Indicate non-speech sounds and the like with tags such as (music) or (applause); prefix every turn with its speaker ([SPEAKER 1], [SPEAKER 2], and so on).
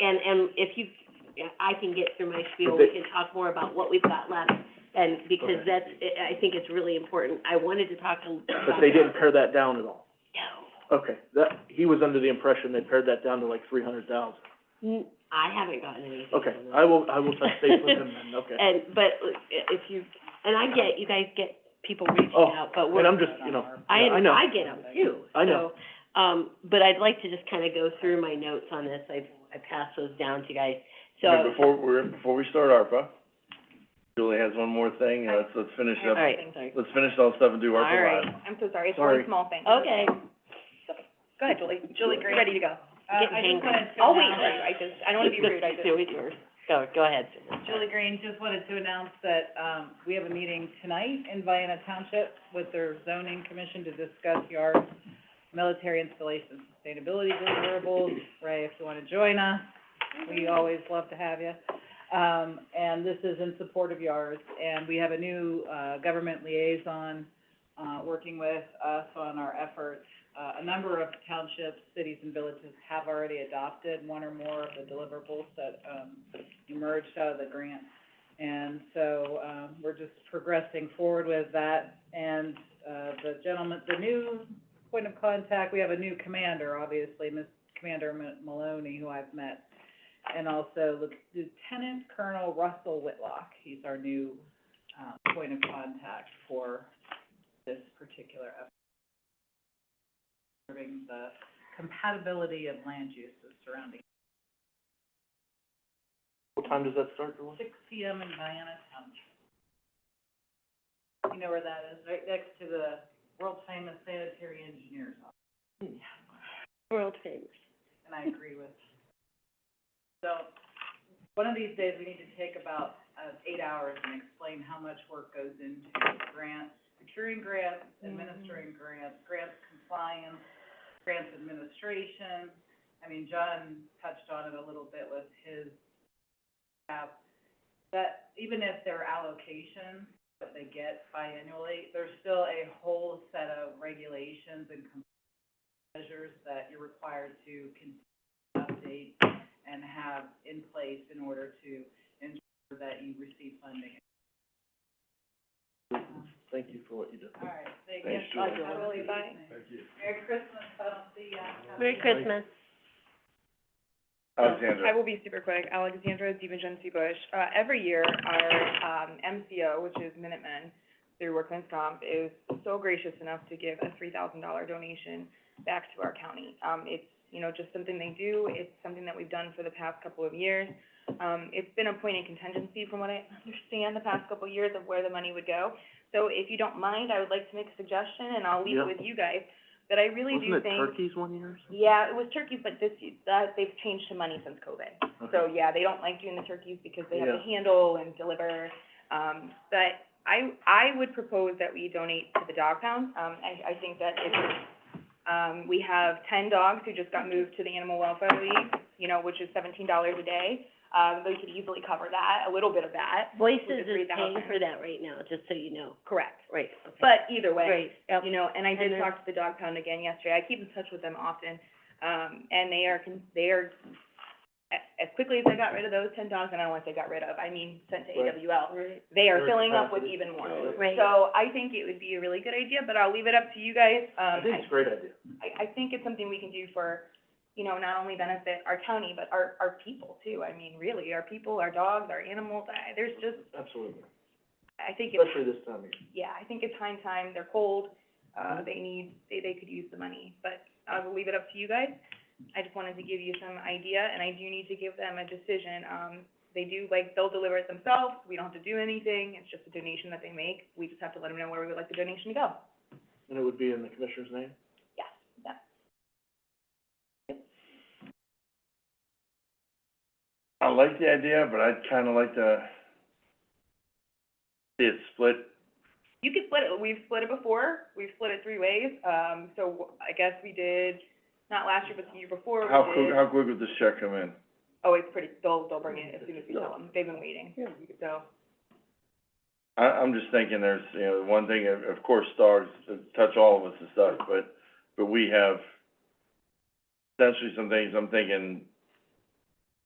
[SPEAKER 1] And, and if you, I can get through my spiel,
[SPEAKER 2] But
[SPEAKER 1] we
[SPEAKER 2] they-
[SPEAKER 1] can talk more about what we've got left, and because
[SPEAKER 2] Okay.
[SPEAKER 1] that's, I I think it's really important. I wanted to talk to.
[SPEAKER 2] But they didn't pare that down at all.
[SPEAKER 1] No,
[SPEAKER 2] Okay, that, he was under the impression they pared that down to like three hundred thousand.
[SPEAKER 1] N- I haven't gotten anything on
[SPEAKER 2] Okay,
[SPEAKER 1] that.
[SPEAKER 2] I will, I will touch base with him then, okay.
[SPEAKER 1] And, but i- if you, and I get, you guys get people reaching
[SPEAKER 2] Oh,
[SPEAKER 1] out, but we're,
[SPEAKER 2] And I'm just, you know,
[SPEAKER 1] I,
[SPEAKER 2] yeah, I know.
[SPEAKER 1] I get them too, so.
[SPEAKER 2] I know.
[SPEAKER 1] Um, but I'd like to just kind of go through my notes on this. I've, I passed those down to you guys, so.
[SPEAKER 3] Okay, Before, we're, before we start ARPA, Julie has one more thing, and let's, let's finish
[SPEAKER 1] All
[SPEAKER 3] up,
[SPEAKER 1] right,
[SPEAKER 3] let's finish all stuff and do
[SPEAKER 1] All right.
[SPEAKER 3] ARPA last.
[SPEAKER 4] I'm so sorry, it's
[SPEAKER 2] Sorry.
[SPEAKER 4] one small thing.
[SPEAKER 1] okay.
[SPEAKER 4] Go ahead, Julie.
[SPEAKER 3] Julie, great.
[SPEAKER 4] Ready to go.
[SPEAKER 1] Uh, I just wanted to
[SPEAKER 4] I'll wait
[SPEAKER 1] announce-
[SPEAKER 4] for you, I just, I don't
[SPEAKER 1] (laughs)
[SPEAKER 4] wanna be rude, I just.
[SPEAKER 1] Do it yours. Go, go ahead.
[SPEAKER 5] Julie Green, just wanted to announce that, um, we have a meeting tonight in Vienna Township with their zoning commission to discuss yard military installation sustainability deliverables. Ray, if you wanna join us, we always love to have you. Um, and this is in support of yards, and we have a new, uh, government liaison, uh, working with us on our efforts. Uh, a number of townships, cities, and villages have already adopted one or more of the deliverables that, um, emerged out of the grant. And so, um, we're just progressing forward with that. And, uh, the gentleman, the new point of contact, we have a new commander, obviously, Miss Commander Ma- Maloney, who I've met. And also Lieu- Lieutenant Colonel Russell Whitlock, he's our new, um, point of contact for this particular effort. Serving the compatibility of land uses surrounding
[SPEAKER 2] What time does that start, Julie?
[SPEAKER 5] six P M in Vienna Township. You know where that is, right next to the world-famous sanitary engineer's office,
[SPEAKER 1] World famous.
[SPEAKER 5] and I agree with. So, one of these days, we need to take about, uh, eight hours and explain how much work goes into grants, securing grants, administering grants, grants compliance, grants administration. I mean, John touched on it a little bit with his staff, that even if their allocation, that they get biannually, there's still a whole set of regulations and com- measures that you're required to con- update and have in place in order to ensure that you receive funding.
[SPEAKER 2] Thank you for what you did.
[SPEAKER 5] All right, thank you.
[SPEAKER 3] Thanks, Julie.
[SPEAKER 5] Bye, Julie.
[SPEAKER 4] Bye.
[SPEAKER 3] Thank you.
[SPEAKER 5] Merry Christmas, I'll see ya.
[SPEAKER 1] Merry Christmas.
[SPEAKER 4] I
[SPEAKER 3] Alexandra,
[SPEAKER 4] will be super quick. Alexandra DiVincenzi Bush. Uh, every year, our, um, MCO, which is Minutemen, through Workman's Comp, is so gracious enough to give a three thousand dollar donation back to our county. Um, it's, you know, just something they do. It's something that we've done for the past couple of years. Um, it's been a point of contingency from what I understand the past couple of years of where the money would go. So if you don't mind, I would like to make a suggestion, and I'll leave
[SPEAKER 2] Yeah.
[SPEAKER 4] it with you guys, that I really do
[SPEAKER 2] Wasn't it
[SPEAKER 4] think
[SPEAKER 2] turkeys one year?
[SPEAKER 4] yeah, it was turkeys, but this, y- that, they've changed to money since COVID. So, yeah, they don't like doing the turkeys because they have to handle and deliver. Um, but I, I would propose that we donate to the dog pound. Um, I, I think that if, um, we have ten dogs who just got moved to the Animal Welfare League, you know, which is seventeen dollars a day. Um, they could easily cover that, a little bit of that,
[SPEAKER 1] Voices
[SPEAKER 4] With the
[SPEAKER 1] is paying
[SPEAKER 4] 3,000.
[SPEAKER 1] for that right now, just so you know.
[SPEAKER 4] correct.
[SPEAKER 1] Right, okay.
[SPEAKER 4] But either way,
[SPEAKER 1] Right, yep.
[SPEAKER 4] you know, and I did
[SPEAKER 1] And
[SPEAKER 4] talk to the dog pound again yesterday, I keep in touch with them often, um, and they are, con- they are, a- as quickly as I got rid of those ten dogs, and I don't want to say got rid of, I mean, sent to
[SPEAKER 2] Right.
[SPEAKER 4] AWL,
[SPEAKER 1] Right.
[SPEAKER 4] they are
[SPEAKER 2] Their
[SPEAKER 4] filling up with
[SPEAKER 2] capacity. Oh,
[SPEAKER 4] even more.
[SPEAKER 2] Yeah.
[SPEAKER 1] Right.
[SPEAKER 4] So I think it would be a really good idea, but I'll leave it up to you guys,
[SPEAKER 2] I
[SPEAKER 4] um,
[SPEAKER 2] think it's a great idea.
[SPEAKER 4] I, I think it's something we can do for, you know, not only benefit our county, but our, our people too, I mean, really, our people, our dogs, our animals, I, there's just,
[SPEAKER 2] Absolutely,
[SPEAKER 4] I think it's
[SPEAKER 2] especially this time of year.
[SPEAKER 4] yeah, I think it's high time, they're cold, uh, they need, they, they could use the money, but I will leave it up to you guys. I just wanted to give you some idea, and I do need to give them a decision, um, they do, like, they'll deliver it themselves, we don't have to do anything, it's just a donation that they make, we just have to let them know where we would like the donation to go.
[SPEAKER 2] And it would be in the commissioner's name?
[SPEAKER 4] Yes, yeah.
[SPEAKER 3] I like the idea, but I'd kinda like to see it split.
[SPEAKER 4] You could split it, we've split it before, we've split it three ways, um, so I guess we did, not last year, but the year before, we did.
[SPEAKER 3] How quick, how quick would this check come in?
[SPEAKER 4] Oh, it's pretty, they'll, they'll bring it as soon as we tell them, they've been waiting, so.
[SPEAKER 3] I, I'm just thinking there's, you know, one thing, of, of course, dogs touch all of us and stuff, but, but we have essentially some things, I'm thinking